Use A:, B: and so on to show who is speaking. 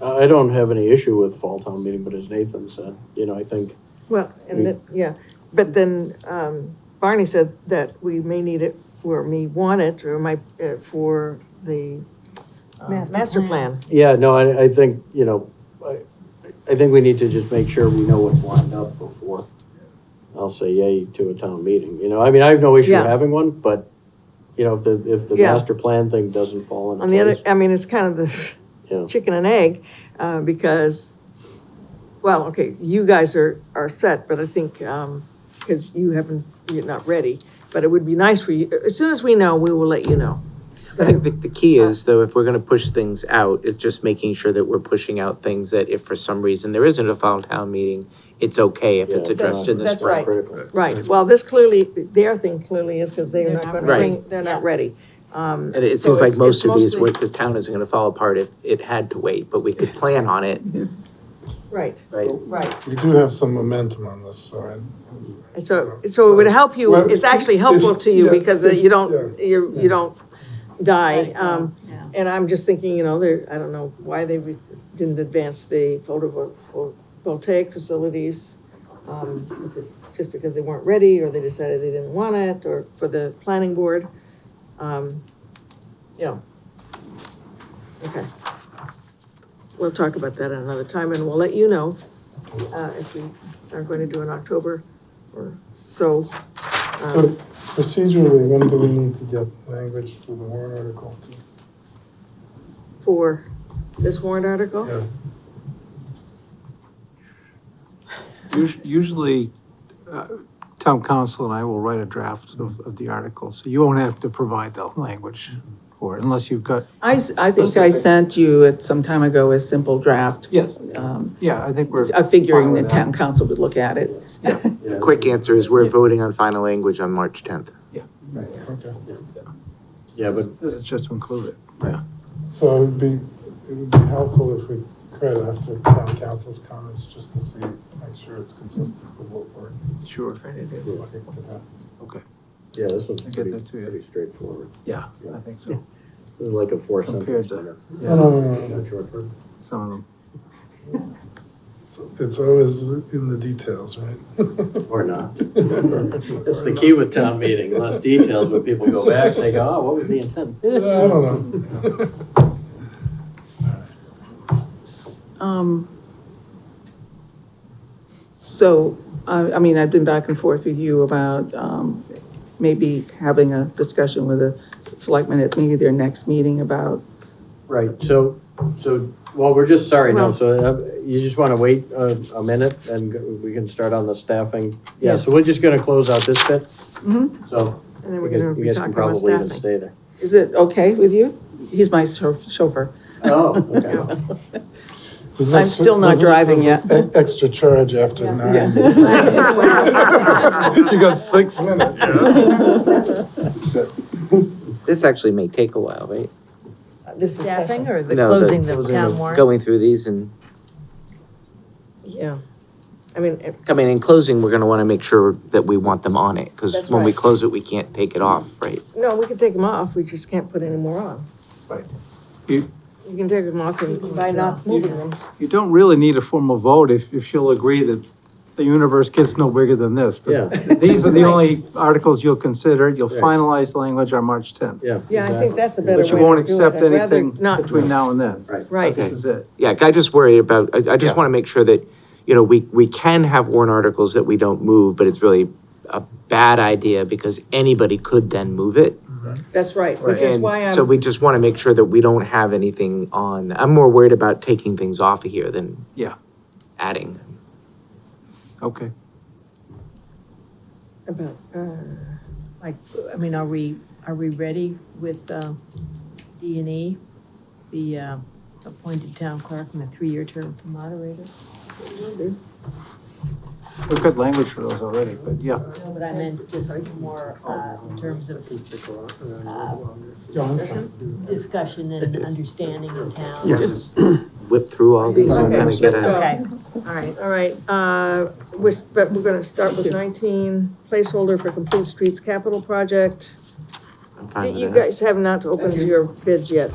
A: I don't have any issue with fall town meeting, but as Nathan said, you know, I think,
B: Well, and then, yeah, but then, um, Barney said that we may need it, or may want it, or might, uh, for the uh,
C: Master
B: master
C: plan.
B: plan.
A: yeah, no, I, I think, you know, I, I think we need to just make sure we know what's lined up before. I'll say yay to a town meeting, you know, I mean, I have no issue
B: Yeah.
A: having one, but, you know, if the, if the
B: Yeah.
A: master plan thing doesn't fall into
B: On the other,
A: place.
B: I mean, it's kind of
A: Yeah.
B: the chicken and egg, uh, because, well, okay, you guys are, are set, but I think, um, because you haven't, you're not ready, but it would be nice for you, as soon as we know, we will let you know.
D: I think the, the key is though, if we're gonna push things out, it's just making sure that we're pushing out things that if for some reason there isn't a fall town meeting, it's okay if it's
A: Yeah,
D: addressed in the
B: That's
D: spring.
B: right.
A: Critical.
B: Right, well, this clearly, their thing clearly is because they're
C: They're
B: not
C: not
B: gonna
D: ready.
B: bring, they're not
C: Yeah.
B: ready. Um,
D: And it
B: So
D: seems like
B: it's- it's
D: most of these,
B: mostly-
D: where the town isn't gonna fall apart if it had to wait, but we could plan on it,
B: right,
D: right?
B: right.
E: We do have some momentum on this, so I.
B: And so, so it would help you,
E: Well,
B: it's actually helpful to you
E: yeah,
B: because uh, you don't,
E: yeah.
B: you, you don't die.
C: Right,
B: Um,
C: yeah.
B: and I'm just thinking, you know, there, I don't know why they re- didn't advance the photovol- pho- voltaic facilities. um, Just because they weren't ready or they decided they didn't want it or for the planning board. Um, You know. Okay. We'll talk about that at another time and we'll let you know uh, if we are going to do in October or so. um,
E: So procedurally, when do we need to get language for the warrant article?
B: For this warrant article?
E: Yeah,
F: Us- Usually, uh, town council and I will write a draft of, of the article, so you won't have to provide the language for it unless you've got,
G: I, s- I think I sent you it some time ago a simple draft,
F: yes,
G: um,
F: yeah, I think we're.
G: uh, figuring
F: fine
G: the
F: with
G: town
F: that.
G: council would look at it.
A: Yeah.
D: Quick answer is we're voting on final language on March tenth.
E: okay.
A: Yeah, but
F: This is just to include it.
E: So it would be, it would be helpful if we could, after town council's comments, just to see, make sure it's consistent with what we're
F: Sure.
E: looking to do.
A: Yeah, this one's
F: I get
A: pretty,
F: that too, yeah.
A: pretty straightforward.
F: Yeah, I think so.
A: This is like a four sentence.
F: Compared to-
E: No,
F: Yeah,
E: no, no, no, no.
A: Not short term.
F: some of them.
E: It's- It's always in the details, right?
A: Or not. That's the key with town meeting, less details, but people go back, they go, oh, what was the intent?
E: I don't know.
G: Um, So, I, I mean, I've been back and forth with you about, um, maybe having a discussion with the selectmen at maybe their next meeting about,
A: Right, so, so, well, we're just, sorry, no,
B: Well-
A: so uh, you just want to wait a, a minute and go- we can start on the staffing. Yeah, so we're just going to close out this bit.
G: Mhm.
A: So
B: And then we're
A: you
B: gonna
A: guys- you
B: be
A: guys can
B: talking about
A: probably even
B: staffing.
A: stay there.
G: is it okay with you? He's my chauff- chauffeur.
A: Oh, okay.
E: There's no
G: I'm
E: cer-
G: still not
E: there's a-
G: driving
E: there's a e- Extra charge after nine.
G: Yeah.
E: You got six minutes.
D: This actually may take a while, right?
B: This is
C: Staffing or the
D: No, the
C: closing the
D: closing
C: town
D: of-
C: warrant?
D: Going through these and,
B: Yeah. I mean, it-
D: I mean, in closing, we're gonna wanna make sure that we want them on it, cause
B: That's
D: when we
B: right.
D: close it, we can't take it off, right?
B: no, we can take them off, we just can't put any more on.
F: Right.
B: You
F: You-
B: can take them off and by not moving them.
F: You don't really need a formal vote if, if you'll agree that the universe gets no bigger than this.
A: Yeah.
F: These are the only articles you'll consider, you'll
A: Right.
F: finalize language on March tenth.
A: Yeah.
B: Yeah, I think
A: exactly.
B: that's a better way
F: But
B: to do
F: you
B: it.
F: won't accept
B: I'd rather
F: anything
B: Not,
F: between now and then.
B: right,
D: Okay.
F: This is it.
D: Yeah, I just worry about, I, I just
F: Yeah.
D: want to make sure that, you know, we, we can have warrant articles that we don't move, but it's really a bad idea because anybody could then move it.
B: that's right, which is
D: And
B: why
D: So
B: I'm,
D: we just want to make sure that we don't have anything on, I'm more worried about taking things off of here than
F: Yeah.
D: adding.
F: Okay.
B: about, uh,
C: Like, I mean, are we, are we ready with, uh, D and E? The, uh, appointed town clerk and a three-year term for moderator?
F: We've got language for those already, but yeah.
C: No, but I meant just more, uh, in terms of
E: uh,
C: uh, discussion and understanding in town.
F: Yes.
D: Whip through all these and
B: Okay,
D: kind of get
B: let's go.
D: a,
C: Okay, all right.
B: All right, uh, which, but we're gonna start with nineteen, placeholder for complete streets capital project.
D: I'm fine with
B: You
D: that.
B: guys have not opened your bids yet,